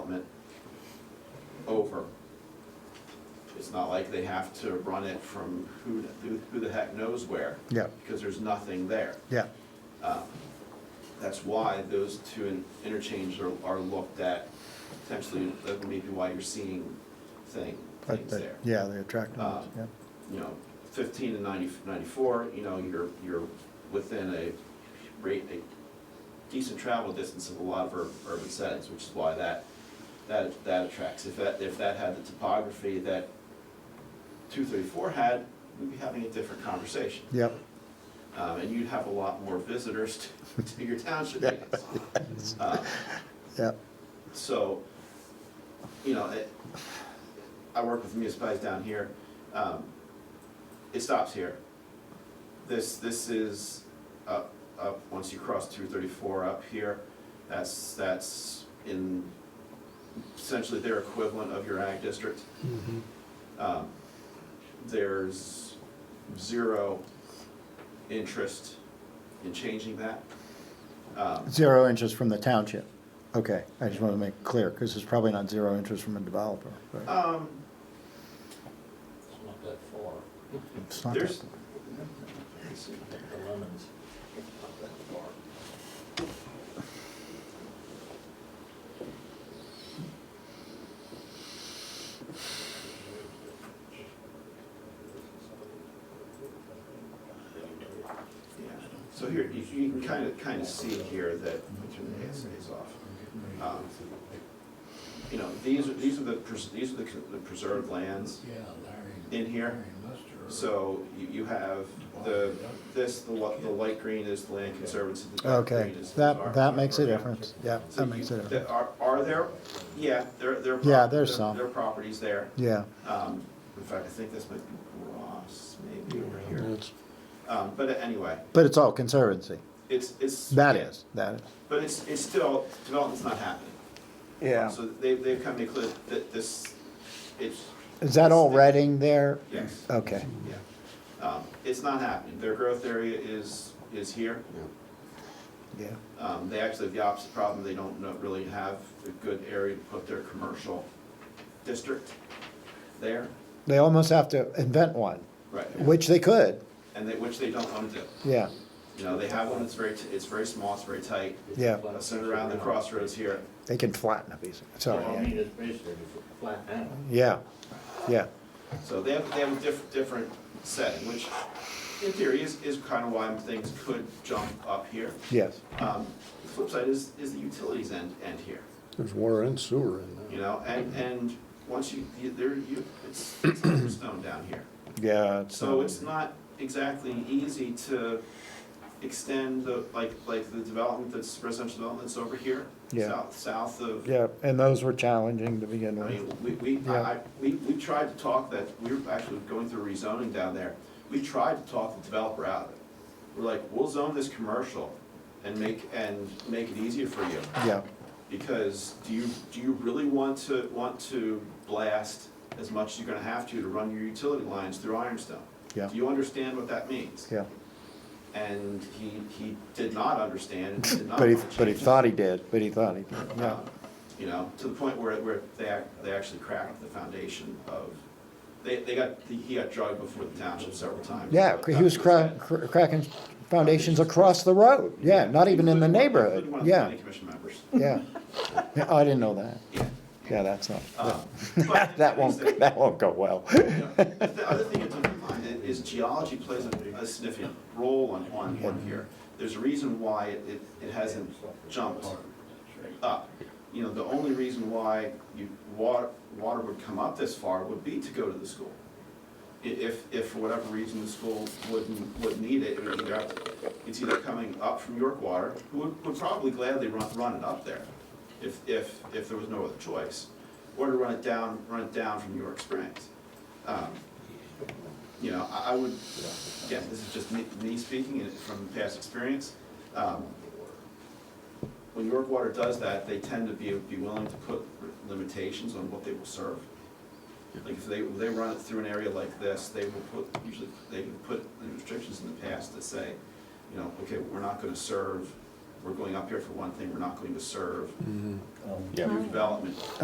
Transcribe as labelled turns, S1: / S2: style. S1: over. It's not like they have to run it from who, who- who the heck knows where.
S2: Yeah.
S1: Because there's nothing there.
S2: yeah,
S1: That's why those two in- interchanges are, are looked at potentially, that may be why you're seeing thing,
S2: but,
S1: things
S2: but-
S1: there.
S2: yeah, they attract noise,
S1: Uh,
S2: yeah.
S1: you know, fifteen and 90 94. you know, you're, you're within a rate, a decent travel distance of a lot of ur- urban settings, which is why that, that, that attracts. If that, if that had the topography that two thirty-four had, we'd be having a different conversation.
S2: Yep,
S1: Um, and you'd have a lot more visitors to, to your township meetings. Uh,
S2: yep,
S1: so, you know, it, I work with municipalities down here, um, it stops here. This, this is up, up, once you cross two thirty-four up here, that's, that's in essentially their equivalent of your ag district.
S2: Mm-hmm.
S1: Um, There's zero interest in changing that. Um,
S2: zero interest from the township, okay, I just wanna make it clear, cause it's probably not zero interest from a developer, but
S1: Um,
S3: It's not that far,
S2: it's not.
S1: there's,
S2: that-
S3: it's like the lemons, it's not that far.
S1: Yeah, so here, you you can kind of, kind of see here that, let me turn the ASAs off. Um, You know, these are, these are the, pres- these are the con- the preserved lands
S4: Yeah, Larry.
S1: in here.
S4: Lester.
S1: So you, you have the, this, the li- the light green is the land conservancy, the dark
S2: Okay,
S1: green is. is our-
S2: that, that makes a
S1: our-
S2: difference, yeah,
S1: So
S2: that
S1: you-
S2: makes a
S1: there
S2: difference,
S1: Are, are there, yeah, there, there. are
S2: Yeah,
S1: prop-
S2: there's
S1: there-
S2: some.
S1: There are properties there.
S2: yeah,
S1: Um, In fact, I think this might be Ross, maybe over here.
S5: That's-
S1: Um, But anyway,
S2: but it's all conservancy,
S1: it's, it's.
S2: that is, that is.
S1: But it's, it's still, development's not happening. So they, they've come to clear that this, it's,
S2: Is that all Reading there?
S1: yes,
S2: Okay,
S1: yeah. Um, It's not happening. Their growth area is, is here.
S2: yeah,
S1: Um, They actually have the opposite problem. They don't know- really have a good area to put their commercial district there.
S2: they almost have to invent one,
S1: Right.
S2: which they could,
S1: And they, which they don't want to do.
S2: yeah,
S1: You know, they have one that's very, t- it's very small, it's very tight.
S2: yeah,
S1: Uh, Centered around the crossroads here.
S2: they can flatten a piece, of-
S3: So, I
S2: sorry,
S3: mean, it's basically a flat panel.
S2: yeah, yeah,
S1: So they have, they have a different, different setting, which in theory is, is kind of why things could jump up here.
S2: yes,
S1: Um, The flip side is, is the utilities end, end here,
S5: There's water and sewer in
S1: you
S5: there.
S1: know, and,
S2: Mm-hmm.
S1: and once you, you- there, you, it's, it's under stone down here.
S2: yeah.
S1: So it's not exactly easy to extend the, like, like the development that's residential development that's over here,
S2: Yeah.
S1: south, south of.
S2: Yeah, and those were challenging to begin
S1: I
S2: with.
S1: mean, we, we,
S2: Yeah.
S1: I, I- we, we tried to talk that, we were actually going through rezoning down there. We tried to talk the developer out of it. We're like, we'll zone this commercial and make, and make it easier for you.
S2: Yeah,
S1: Because do you, do you really want to, want to blast as much as you're gonna have to to run your utility lines through Ironstone?
S2: Yeah.
S1: Do you understand what that means?
S2: yeah.
S1: And he, he did not understand, and did not
S2: But he,
S1: want to
S2: but he
S1: change it.
S2: thought he did, but he thought he did, yeah.
S1: Um, You know, to the point where, where they, ac- they actually cracked the foundation of, they, they got, he got drugged before the township several times.
S2: Yeah, he was cra- cr- cracking foundations across the road, yeah, not even in the
S1: Including-
S2: neighborhood,
S1: including one of the
S2: yeah,
S1: planning commission members.
S2: yeah. Yeah, I didn't know that,
S1: Yeah.
S2: yeah, that's not,
S1: Um, but-
S2: that won't, that won't go well.
S1: The th- other thing to keep in mind i- is geology plays a a significant role on, on, on here. There's a reason why it, it- it hasn't jumped up. You know, the only reason why you, water, water would come up this far would be to go to the school. I- If, if for whatever reason the school wouldn't, would need it, it would either, it's either coming up from York Water, who would, would probably gladly run, run it up there if, if, if there was no other choice, or to run it down, run it down from York Springs. Um, You know, I, I would, again, this is just me, me speaking and from past experience. Um, When York Water does that, they tend to be, be willing to put limitations on what they will serve. Like if they, they run it through an area like this, they will put, usually, they can put restrictions in the past that say, you know, okay, we're not gonna serve, we're going up here for one thing, we're not going to serve
S5: Mhm.
S1: new development